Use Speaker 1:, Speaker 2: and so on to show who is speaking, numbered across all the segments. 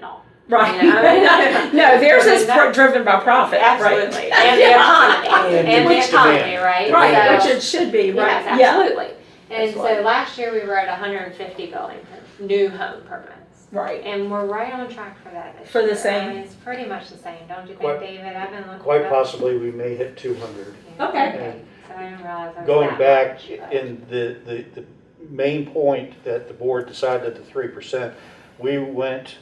Speaker 1: no.
Speaker 2: Right.
Speaker 1: You know, I
Speaker 2: no, theirs
Speaker 1: I mean,
Speaker 2: is
Speaker 1: that-
Speaker 2: pro- driven by profit. Right.
Speaker 1: Oh, Absolutely. And the economy,
Speaker 3: And
Speaker 1: and the
Speaker 3: which
Speaker 1: economy,
Speaker 3: demand.
Speaker 1: right?
Speaker 3: Yeah.
Speaker 2: Right,
Speaker 1: So-
Speaker 2: which it should be, right?
Speaker 1: Yes,
Speaker 2: Yeah.
Speaker 1: absolutely. And so
Speaker 3: Absolutely.
Speaker 1: last year, we were at hundred and fifty building, per- new home permits.
Speaker 2: Right.
Speaker 1: And we're right on track for that this
Speaker 2: For the
Speaker 1: year. I
Speaker 2: same?
Speaker 1: mean, It's pretty much the same, don't you think,
Speaker 3: Quite-
Speaker 1: David? I've been looking.
Speaker 3: Quite
Speaker 1: it up.
Speaker 3: possibly, we may hit two hundred.
Speaker 1: Yeah.
Speaker 2: Okay.
Speaker 1: So I didn't realize I was
Speaker 3: Going
Speaker 1: that
Speaker 3: back,
Speaker 1: much, but-
Speaker 3: in the, the, the main point that the board decided the three percent, we went,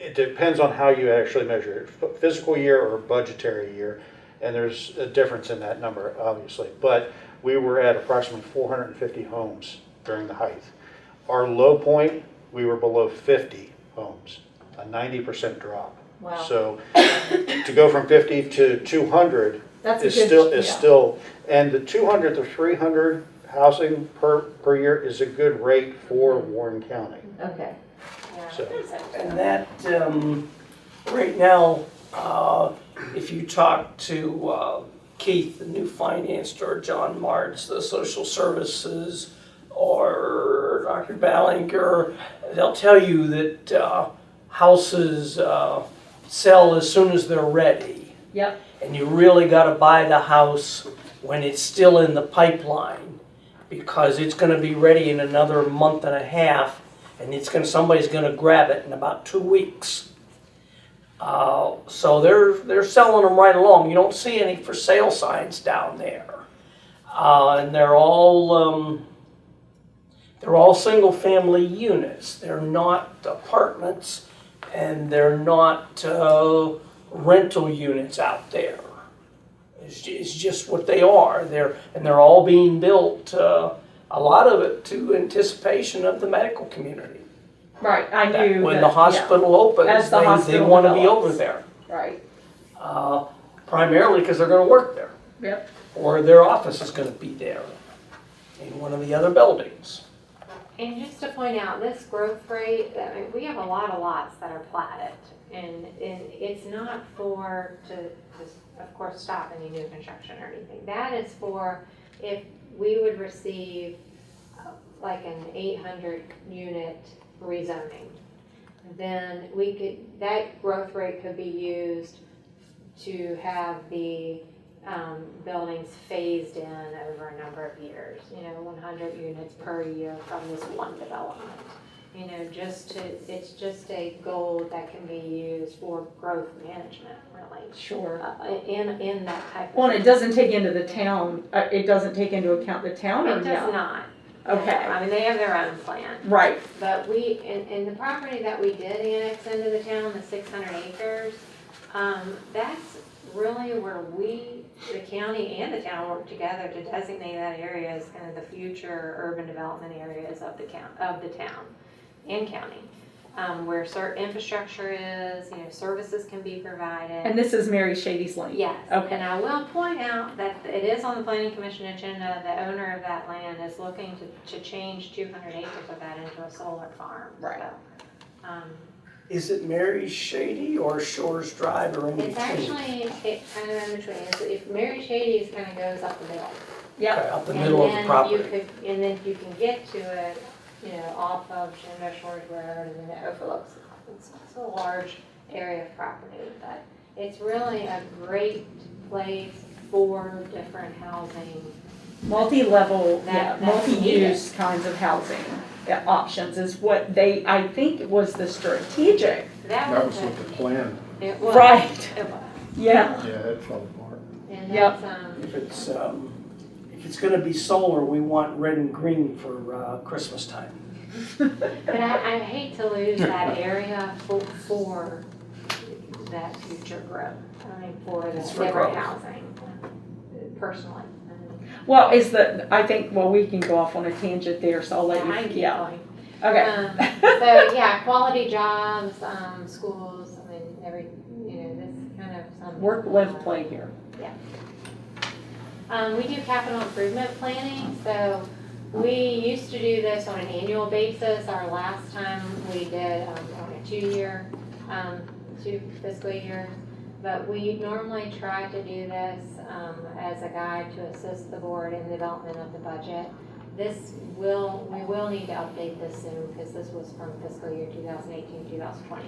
Speaker 3: it depends on how you actually measure it, ph- fiscal year or budgetary year, and there's a difference in that number, obviously, but we were at approximately four hundred and fifty homes during the height. Our low point, we were below fifty homes, a ninety percent drop.
Speaker 2: Wow.
Speaker 3: So, to go from fifty to two hundred,
Speaker 2: That's a
Speaker 3: is
Speaker 2: good-
Speaker 3: still, is
Speaker 2: yeah.
Speaker 3: still, and the two hundred to three hundred housing per, per year is a good rate for
Speaker 2: Mm-hmm.
Speaker 3: Warren County.
Speaker 2: Okay.
Speaker 1: Yeah.
Speaker 3: So-
Speaker 4: And that, um, right now, uh, if you talk to, uh, Keith, the new finance, or John Martz, the social services, or Dr. Ballinger, they'll tell you that, uh, houses, uh, sell as soon as they're ready.
Speaker 2: Yep.
Speaker 4: And you really gotta buy the house when it's still in the pipeline, because it's gonna be ready in another month and a half, and it's gonna, somebody's gonna grab it in about two weeks. Uh, so they're, they're selling them right along, you don't see any for sale signs down there. Uh, and they're all, um, they're all single-family units, they're not apartments, and they're not, uh, rental units out there. It's, ju- it's just what they are. They're and they're all being built. Uh, a lot of it to anticipation of the medical community.
Speaker 2: Right. I
Speaker 4: That
Speaker 2: knew
Speaker 4: when
Speaker 2: that-
Speaker 4: the
Speaker 2: yeah,
Speaker 4: hospital opens,
Speaker 2: As the
Speaker 4: they,
Speaker 2: hospital
Speaker 4: they want to be
Speaker 2: develops.
Speaker 4: over there,
Speaker 2: Right.
Speaker 4: uh, primarily because they're going to work there,
Speaker 2: Yep.
Speaker 4: or their office is going to be there in one of the other buildings.
Speaker 1: And just to point out, this growth rate, I mean, we have a lot of lots that are platted. And, and it's not for, to, to, of course, stop any new construction or anything. That is for if we would receive uh, like an eight hundred unit rezoning, then we could, that growth rate could be used to have the um, buildings phased in over a number of years, you know, one hundred units per year from this one development. You know, just to, it's just a goal that can be used for growth management, really,
Speaker 2: Sure.
Speaker 1: uh, in, in that type of.
Speaker 2: Well, and it doesn't take into the town. Uh, it doesn't take into account the town or
Speaker 1: It does
Speaker 2: no.
Speaker 1: not.
Speaker 2: Okay.
Speaker 1: I mean, they have their own plan.
Speaker 2: Right.
Speaker 1: But we, and, and the property that we did annex into the town, the six hundred acres, um, that's really where we, the county and the town work together to designate that area as kind of the future urban development areas of the count, of the town and county. Um, where cer- infrastructure is, you know, services can be provided.
Speaker 2: And this is Mary Shady's Lane.
Speaker 1: Yes,
Speaker 2: Okay.
Speaker 1: and I will point out that it is on the planning commission agenda, the owner of that land is looking to, to change two hundred acres of that into a solar farm,
Speaker 2: Right.
Speaker 1: so, Um,
Speaker 4: Is it Mary Shady or Shores Drive or in
Speaker 1: it's
Speaker 4: between?
Speaker 1: actually, it kind of in between, It's- if Mary Shady's kind of goes up the hill.
Speaker 4: Okay, out the middle of the property.
Speaker 1: And then you could, and then you can get to it, you know, off of Shenandoah Shores Road and then it overlooks, it's, it's a large area of property, but it's really a great place for different housing.
Speaker 2: multi-level, yeah,
Speaker 1: That- that's
Speaker 2: multi-use kinds of housing uh, options is what they, I think, was the strategic.
Speaker 1: That
Speaker 5: That
Speaker 1: was
Speaker 5: was with the
Speaker 1: a-
Speaker 5: plan,
Speaker 1: It was.
Speaker 2: Right,
Speaker 1: It was.
Speaker 2: yeah.
Speaker 5: yeah, that fell apart.
Speaker 1: And
Speaker 2: Yep.
Speaker 1: that's, um,
Speaker 4: If it's, um, if it's gonna be solar, we want red and green for, uh, Christmas time.
Speaker 1: but I, I hate to lose that area for, for that future growth. I mean, for the
Speaker 4: It's for
Speaker 1: different
Speaker 4: growth.
Speaker 1: housing, personally.
Speaker 2: Well, is the, I think, well, we can go off on a tangent there, so I'll
Speaker 1: I
Speaker 2: let
Speaker 1: keep
Speaker 2: you, yeah,
Speaker 1: going.
Speaker 2: okay.
Speaker 1: Um, So, yeah, quality jobs, um, schools, I mean, every, you know, this kind of um, some.
Speaker 2: Work, live, play here.
Speaker 1: Um, we do capital improvement planning, so we used to do this on an annual basis. Our last time we did, um, on a two-year, um, two fiscal year. But we normally try to do this, um, as a guide to assist the board in development of the budget. This will, we will need to update this soon because this was from fiscal year 2018, 2020.